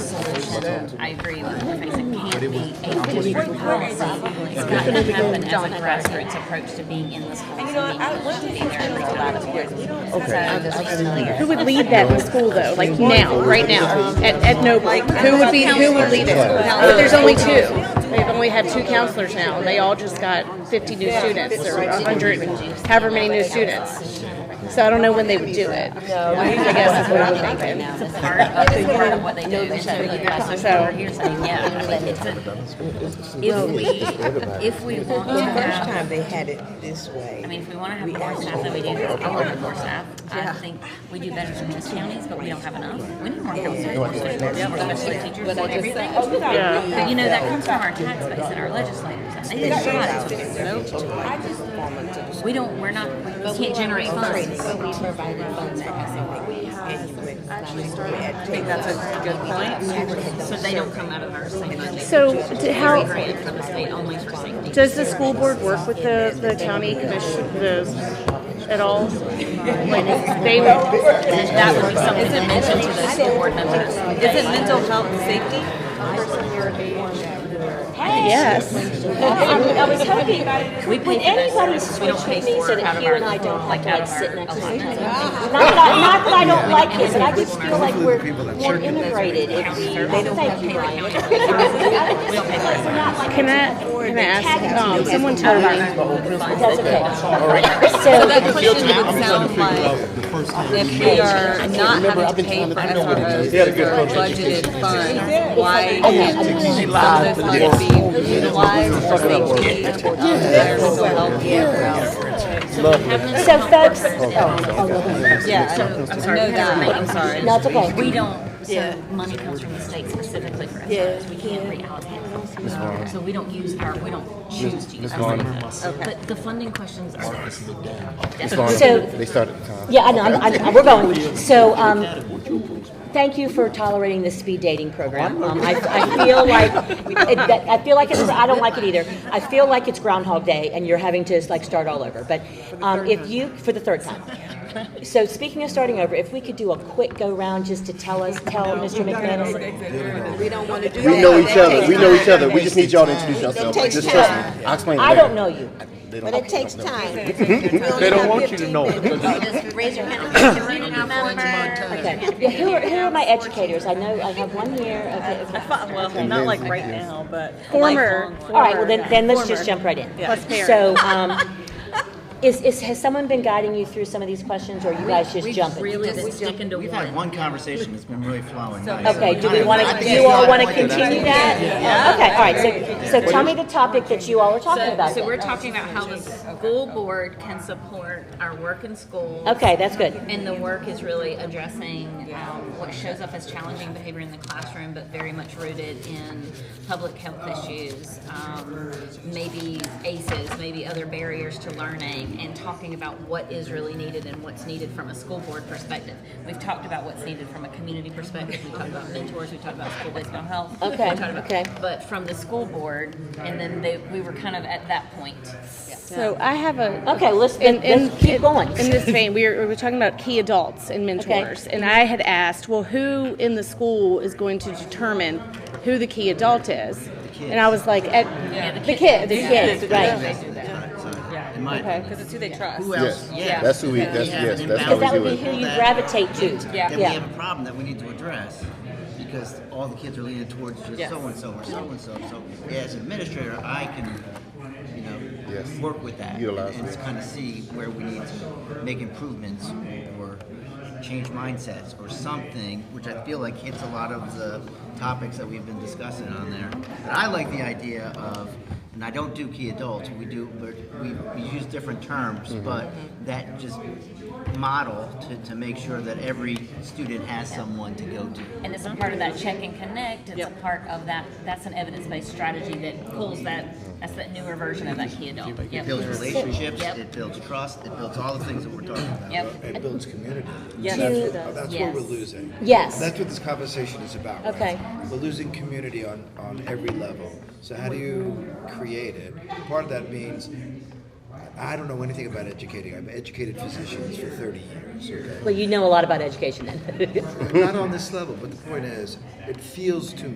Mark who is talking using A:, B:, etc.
A: said, I agree with If I said, can't be a district policy. It's got to happen as a grassroots approach to being in the schools and
B: You know,
A: being
B: I,
A: able
B: one
A: to
B: thing
A: be
B: that's
A: there
B: been
A: every
B: a
A: time.
B: lot of years, we don't
A: So this is
C: Who
A: familiar.
C: would lead that in school though? Like now, right now, at, at Noble, who would be, who would lead it? But there's only two. They've only had two counselors now and they all just got fifty new students or hundred, however many new students. So I don't know when they would do it. I guess is what I'm thinking.
A: It's part of, it's part of what they do. And so you guys are here saying, yeah, but it's a, if we, if we want to
B: First
A: have,
B: time they had it this way.
A: I mean, if we want to have more staff than we do, we want to have more staff. I think we do better than most counties, but we don't have enough. We need more counselors, more students, more special ed teachers, more everything.
D: oh,
A: But you know, that comes from our tax base and our legislators. and They didn't try to- We don't, we're not, we can't generate funds.
B: But we provided funds for everything. And you would actually start at
E: think that's a good point.
A: So they don't come out of our same budget.
C: So d- how,
A: Grant from the state only for safety.
C: does the school board work with the, the county commission, the, at all? Like, they would,
A: And that would be something to mention to those school board members.
E: Is it mental health and safety?
C: yes.
D: I was hoping,
A: We pay
D: when
A: for those
D: anybody's
A: services. We don't
D: switched
A: pay
D: with me,
A: for
D: so
A: it out
D: that
A: of
D: here
A: our-
D: and I don't
A: like,
D: have
A: out of
D: to like
A: our
D: sit next to each
A: allotment.
D: other. Not that, not that I don't like him, but I just feel like we're more integrated if we, thank you, Ryan.
A: We don't pay for it.
C: Can I, can I ask, um, someone told me
D: That's okay.
E: So that question would sound like, if we are not having to pay for SROs, for budgeted funds, why
A: "Oh,
E: can't some of those funds be utilized for safety or to higher mental health programs?
D: So folks,
E: Yeah, I know that, I'm sorry.
D: no, it's okay.
A: We don't, so money comes from the state specifically for SROs. We can't reallocate. it. So we don't use our, we don't choose to use our money. But the funding questions are.
D: So-
F: They started uh, the time.
D: Yeah, I know, I'm, I'm, we're going. So, um, thank you for tolerating the speed dating program. Um, I, I feel like, it, that- I feel like it's, I don't like it either. I feel like it's Groundhog Day and you're having to like start all over. But, um, if you, for the third time. So speaking of starting over, if we could do a quick go round just to tell us, tell Mr. McManus.
B: We don't want to do that.
F: We know each
B: That
F: other,
B: takes
F: we know each
B: time.
F: other, we just need y'all to introduce yourselves,
B: takes
F: just trust
B: time.
F: me, I'll explain it
D: I
F: later.
D: don't know you.
F: They don't-
B: But it takes time.
G: They don't want you to know.
A: Just raise your hand. Community member.
D: Okay. Yeah, who are, who are my educators? I know, I have one here, okay, okay.
E: Well, not like right now, but.
C: Former.
D: All right, well then, then let's just jump right in.
C: Plus parent.
D: So, um, is, is, has someone been guiding you through some of these questions, or you guys just jumping?
A: Really just sticking to
H: We've
A: one.
H: had one conversation that's been really flowing. nice.
D: Okay, do
H: I
D: we
H: don't-
D: want
H: I
D: to,
H: think
D: do you
H: it's
D: all
H: not
D: want to
H: like that.
D: continue that? Okay, all right, so, so tell me the topic that you all are talking about
E: So we're
D: then.
E: talking about how the school board can support our work in schools.
D: Okay, that's good.
A: And the work is really addressing um, what shows up as challenging behavior in the classroom, but very much rooted in public health issues, um, maybe ACEs, maybe other barriers to learning, and talking about what is really needed and what's needed from a school board perspective. We've talked about what's needed from a community perspective. We talked about mentors. We talked about school-based mental health.
D: Okay,
A: We talked about-
D: okay.
A: But from the school board, and then they, we were kind of at that point.
C: So I have a.
D: Okay, let's,
C: in-
D: then-
C: in-
D: let's keep going.
C: In this vein, we were, we were talking about key adults and mentors, and I had asked, well, who in the school is going to determine who the key adult is? And I was like, at, the kid, the
D: Yes,
C: kid,
D: right.
H: So, In my opinion.
E: Because it's who they trust.
H: Who else?
F: Yes,
H: Yeah.
F: that's who we- that's-
H: We have
F: yes,
H: an
F: that's how
D: Because
F: we
D: that
H: imbalance
D: would
F: do
D: be
F: it.
D: who you
H: that-
D: gravitate to.
H: That we have a problem that we need to address because all the kids are leaning towards just
E: Yes.
H: so-and-so or so-and-so. So as an administrator, I can, you
F: Yes.
H: know, work with that.
F: Utilize
H: And
F: it.
H: kind of see where we need to make improvements or change mindsets or something, which I feel like hits a lot of the topics that we've been discussing on there. But I like the idea of, and I don't do key adults, we do, but we, we use different terms, but that just model to, to make sure that every student has someone to go to.
A: And it's a part of that check and connect, it's a part of that, that's an evidence-based strategy that pulls that, that's that newer version of that key adult.
H: It builds
A: Yep.
H: relationships,
A: Yep.
H: it builds trust, it builds all the things that we're talking about.
A: Yep.
I: It builds community.
E: Yes.
I: That's
E: It
I: what-
E: does.
I: That's what we're
A: Yes.
I: losing.
D: Yes.
I: That's what this conversation is about. right?
D: Okay.
I: We're losing community on, on every level. So how do you create it? Part of that means, I don't know anything about educating. I've educated physicians for thirty years, okay?
D: Well, you know a lot about education then.
I: Not on this level, but the point is, it feels to